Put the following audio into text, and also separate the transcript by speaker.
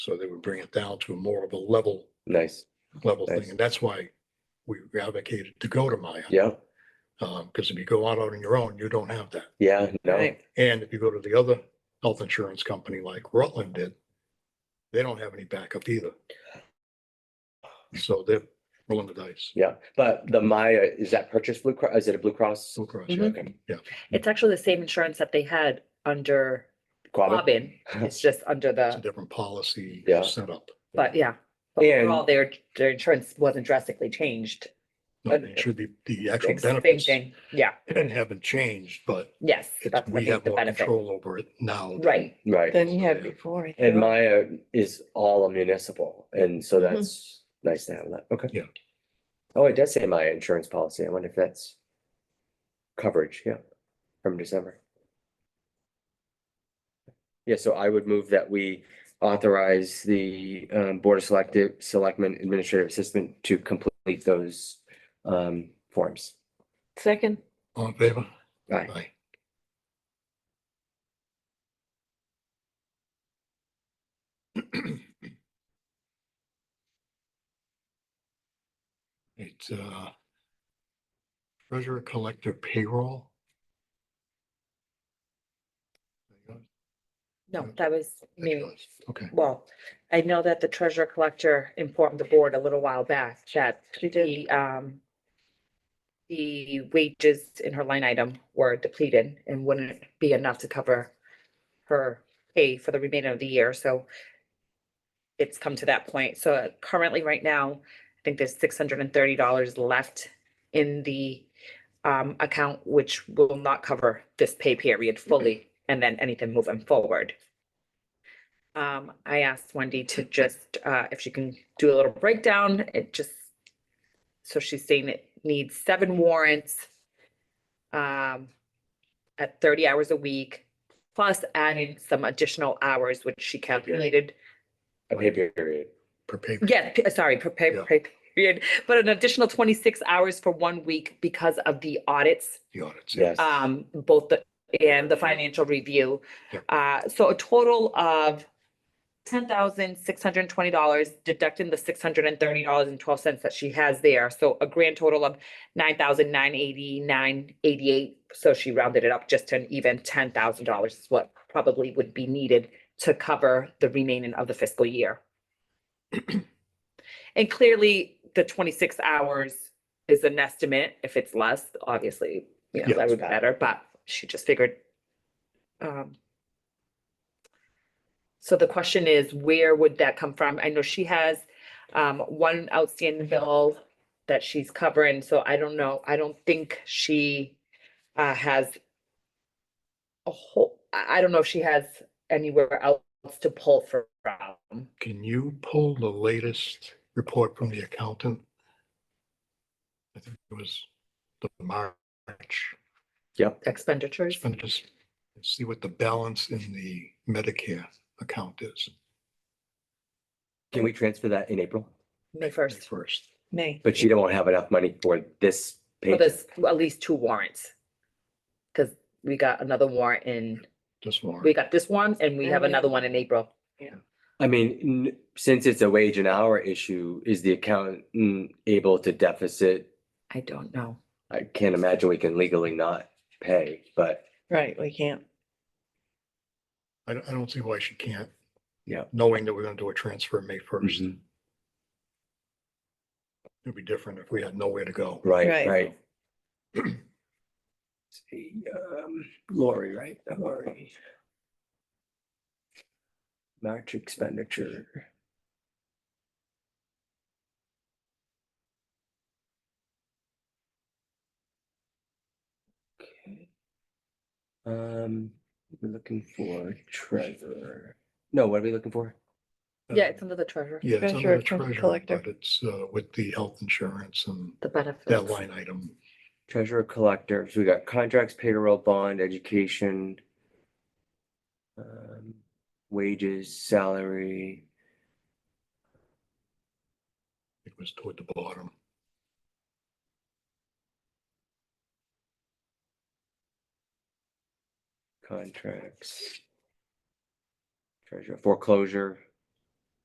Speaker 1: So they would bring it down to more of a level,
Speaker 2: Nice.
Speaker 1: level
Speaker 2: Nice.
Speaker 1: thing. And that's why we advocated to go to Maya.
Speaker 2: Yeah.
Speaker 1: Um, because if you go out on your own, you don't have that.
Speaker 2: Yeah. No.
Speaker 3: Right.
Speaker 1: And if you go to the other health insurance company like Rutland did, they don't have any backup either. So they're rolling the dice.
Speaker 2: Yeah. But the Maya, is that purchased Blue Cross? Is it a Blue Cross?
Speaker 1: Blue Cross,
Speaker 3: Mhm.
Speaker 1: yeah.
Speaker 2: Okay.
Speaker 3: It's actually the same insurance that they had under
Speaker 2: Quabbin?
Speaker 3: Robin. It's just under
Speaker 1: It's a
Speaker 3: the,
Speaker 1: different policy
Speaker 2: Yeah.
Speaker 1: setup.
Speaker 3: but yeah. But
Speaker 2: And-
Speaker 3: overall, their, their insurance wasn't drastically changed.
Speaker 1: No,
Speaker 3: But-
Speaker 1: It should be the actual
Speaker 3: It's the Same
Speaker 1: benefits
Speaker 3: thing. Yeah,
Speaker 1: haven't changed, but
Speaker 3: yes.
Speaker 1: it's,
Speaker 3: that's I
Speaker 1: we
Speaker 3: think
Speaker 1: have
Speaker 3: the
Speaker 1: more
Speaker 3: benefit.
Speaker 1: control over it now.
Speaker 3: Right,
Speaker 2: Right.
Speaker 4: than you had before. I
Speaker 2: And
Speaker 4: thought.
Speaker 2: Maya is all municipal. And so
Speaker 3: Mm-hmm.
Speaker 2: that's nice to have that. Okay.
Speaker 1: Yeah.
Speaker 2: Oh, it does say Maya insurance policy. I wonder if that's coverage. Yeah. From December. Yeah. So I would move that we authorize the um, Board of Selective Selectmen Administrative Assistant to complete those um, forms.
Speaker 4: Second,
Speaker 1: All in favor?
Speaker 2: Aye.
Speaker 1: It's uh treasurer collector payroll.
Speaker 3: no, that was
Speaker 1: That's
Speaker 3: me.
Speaker 1: yours. Okay,
Speaker 3: Well, I know that the treasurer collector informed the board a little while back that
Speaker 4: she did.
Speaker 3: the, um, the wages in her line item were depleted and wouldn't be enough to cover her pay for the remainder of the year, so it's come to that point. So currently, right now, I think there's six hundred and thirty dollars left in the um, account, which will not cover this pay period fully, and then anything moving forward. Um, I asked Wendy to just, uh, if she can do a little breakdown, it just, so she's saying it needs seven warrants. Um, at thirty hours a week, plus adding some additional hours, which she calculated.
Speaker 2: A pay period.
Speaker 1: per paper.
Speaker 3: Yes, p- sorry, per pay,
Speaker 1: Yeah.
Speaker 3: pay period, but an additional twenty-six hours for one week because of the audits
Speaker 1: The audits.
Speaker 2: Yes.
Speaker 3: um, both the, and the financial review.
Speaker 1: Yeah.
Speaker 3: Uh, so a total of ten thousand six hundred and twenty dollars deducting the six hundred and thirty dollars and twelve cents that she has there. So a grand total of nine thousand nine eighty-nine eighty-eight. So she rounded it up just to an even ten thousand dollars is what probably would be needed to cover the remaining of the fiscal year. And clearly, the twenty-six hours is an estimate. If it's less, obviously, you know,
Speaker 1: Yeah.
Speaker 3: that would be better, but she just figured. um, So the question is, where would that come from? I know she has um, one outstanding bill that she's covering, so I don't know. I don't think she uh, has a whole, I, I don't know if she has anywhere else to pull from.
Speaker 1: Can you pull the latest report from the accountant? I think it was the March
Speaker 2: Yep.
Speaker 3: Expenditures?
Speaker 1: expenditures. and See what the balance in the Medicare account is.
Speaker 2: Can we transfer that in April?
Speaker 3: May first,
Speaker 1: First.
Speaker 4: May.
Speaker 2: But she don't have enough money for this
Speaker 3: for
Speaker 2: pay.
Speaker 3: this, at least two warrants. Cause we got another warrant in,
Speaker 1: This one.
Speaker 3: we got this one and we have
Speaker 4: And we-
Speaker 3: another one in April.
Speaker 2: I mean, n- since it's a wage and hour issue, is the accountant able to deficit?
Speaker 3: I don't know.
Speaker 2: I can't imagine we can legally not pay, but
Speaker 4: Right, we can't.
Speaker 1: I don't, I don't see why she can't.
Speaker 2: Yeah. Mm-hmm.
Speaker 1: Knowing that we're gonna do a transfer May first, it'd be different if we had nowhere to go. Uh,
Speaker 2: right,
Speaker 4: Right.
Speaker 2: right. See, um, Lori, right, Lori. March expenditure. Okay. Um, we're looking for treasurer. No, what are we looking for?
Speaker 3: Yeah,
Speaker 1: Uh,
Speaker 3: it's under the treasurer,
Speaker 1: Yeah, it's under the
Speaker 4: Treasurer, treasurer
Speaker 1: treasurer,
Speaker 4: collector.
Speaker 1: but it's, uh, with the health insurance and
Speaker 3: the benefits.
Speaker 1: that line item.
Speaker 2: Treasurer collector, so we got contracts, payroll, bond, education. um, Wages, salary,
Speaker 1: It was toward the bottom.
Speaker 2: contracts. Treasurer foreclosure,